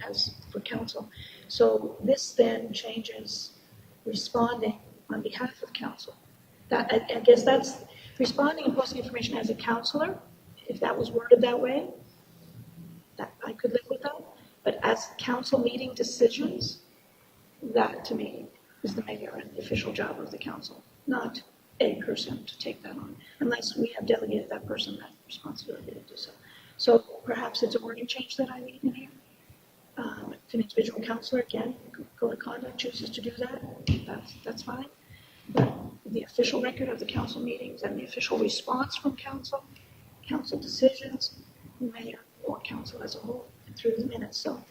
has for council. So this then changes responding on behalf of council. That, I, I guess that's, responding and posting information as a counselor, if that was worded that way, that I could live with that. But as council meeting decisions, that to me is the mayor and the official job of the council, not a person to take that on, unless we have delegated that person that responsibility to do so. So perhaps it's a wording change that I need in here. Um, if an individual counselor, again, code of conduct chooses to do that, that's, that's fine. But the official record of the council meetings and the official response from council, council decisions, mayor or council as a whole, through the minutes. So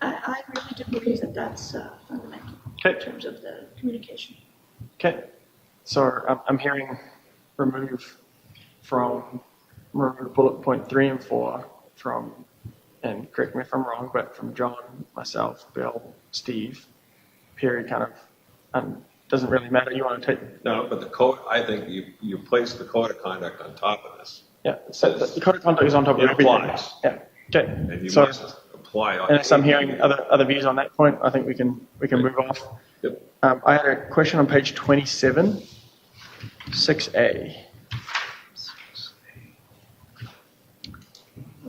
I, I really do believe that that's uh, fundamental in Okay. terms of the communication. Okay, so I'm, I'm hearing remove from, remove bullet point three and four from, and correct me if I'm wrong, but from John, myself, Bill, Steve, period, kind of, um, doesn't really matter, you want to take, No, but the code, I think you, you place the code of conduct on top of this, yeah, so the the code of conduct is on top of It everything. applies. Yeah, and okay, you so, must apply. on- unless I'm hearing other, other views on that point, I think we can, we can move off. Yep. Um, I had a question on page twenty-seven, six A.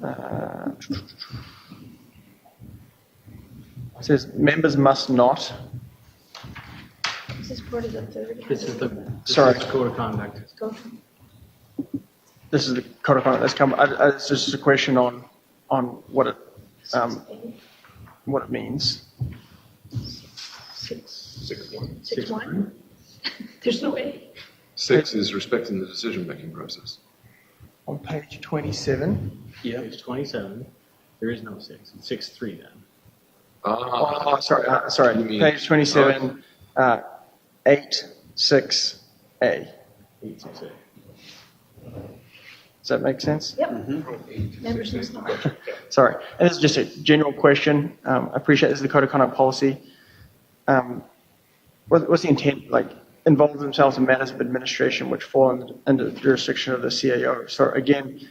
Uh, Says members must not, This is part of the third. This is the, this Sorry. is code of conduct. Go from- this is the code of conduct that's come, uh, I, I, it's just a question on, on what it, um, what it means. Six, Six one. six, one? There's no A. Six is respecting the decision-making process. On page twenty-seven, Yeah. Page 27, there is no six, it's six, three then. Ah, oh, sorry, uh, sorry, You mean- page twenty-seven, uh, eight, six, A. Eight, six, eight. Does that make sense? Yep. Members must not. Sorry. And this is just a general question. Um, I appreciate this is the code of conduct policy. Um, what, what's the intent? Like, involve themselves in matters of administration which fall under, under the jurisdiction of the CAO. So again,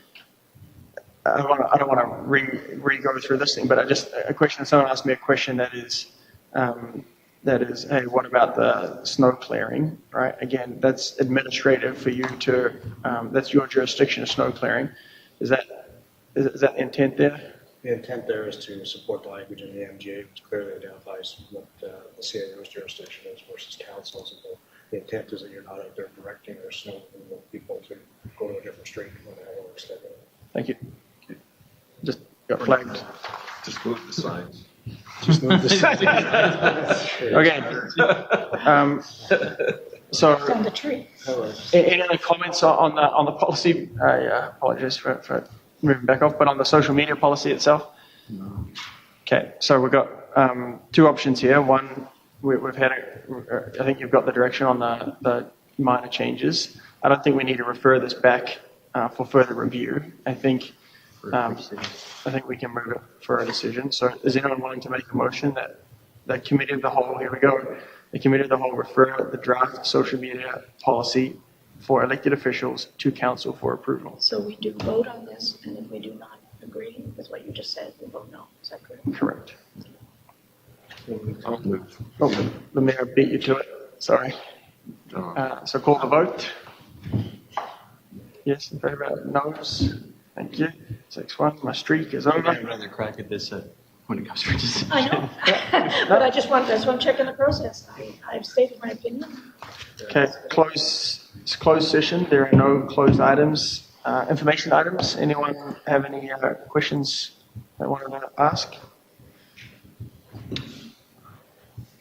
I don't want to, I don't want to re, re-go through this thing, but I just, a question, someone asked me a question that is, um, that is, hey, what about the snow clearing, right? Again, that's administrative for you to, um, that's your jurisdiction of snow clearing. Is that, is, is that intent there? The intent there is to support the language in the MGA, which clearly identifies what uh, the CAO's jurisdiction is versus councils. And the- The intent is that you're not out there directing or snow removal people to go to a different street when they have work schedule. Thank you. Just got flagged. Just move the signs. Just move this. Okay. Um, It's so, on the tree. a- any other comments on on the, on the policy? I uh, apologize for, for moving back off, but on the social media policy itself? Okay, so we've got um, two options here. One, we, we've had, a, I think you've got the direction on the, the minor changes. I don't think we need to refer this back uh, for further review. I think um, I think we can move it for a decision. So is anyone willing to make a motion that the committee of the whole, here we go, the committee of the whole refer the draft social media policy for elected officials to council for approval? So we do vote on this, and if we do not agree with what you just said, we vote no. Is that correct? Correct. I'll move. Oh, the mayor beat you to it, sorry. Uh, Uh, So call the vote. Yes, in favor, noes, thank you. Six one, my streak is I have over. another crack at this uh, when it comes for decision. I know, but I just want, that's why I'm checking the process. I, I've stated my opinion. Okay, close, it's closed session, there are no closed items, uh, information items. Anyone have any uh, questions they want to ask?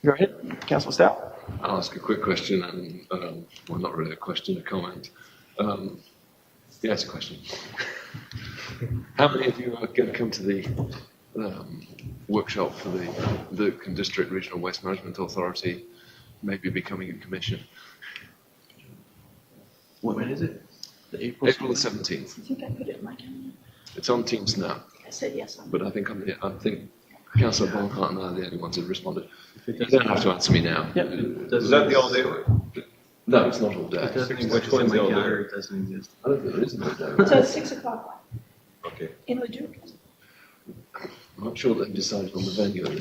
Go ahead, councillor Stout. I'll ask a quick question and, um, well, not really a question, a comment. Um, yeah, it's a question. How many of you are going to come to the, um, workshop for the Luke and District Regional Waste Management Authority, maybe becoming a commission? When is it? The April. April the seventeenth. I think I put it in my calendar. It's on Teams now, I said yes on but I think I'm the, I think councillor Bonhart and I are the only ones who responded. If it You doesn't- don't have to answer me now. Yep. Is that the all day? No, it's not all day. If it doesn't Which exist in one's my the older? calendar, it doesn't exist. I don't think there is no So day. it's six o'clock Okay. in Leduc. I'm not sure they've decided on the venue at this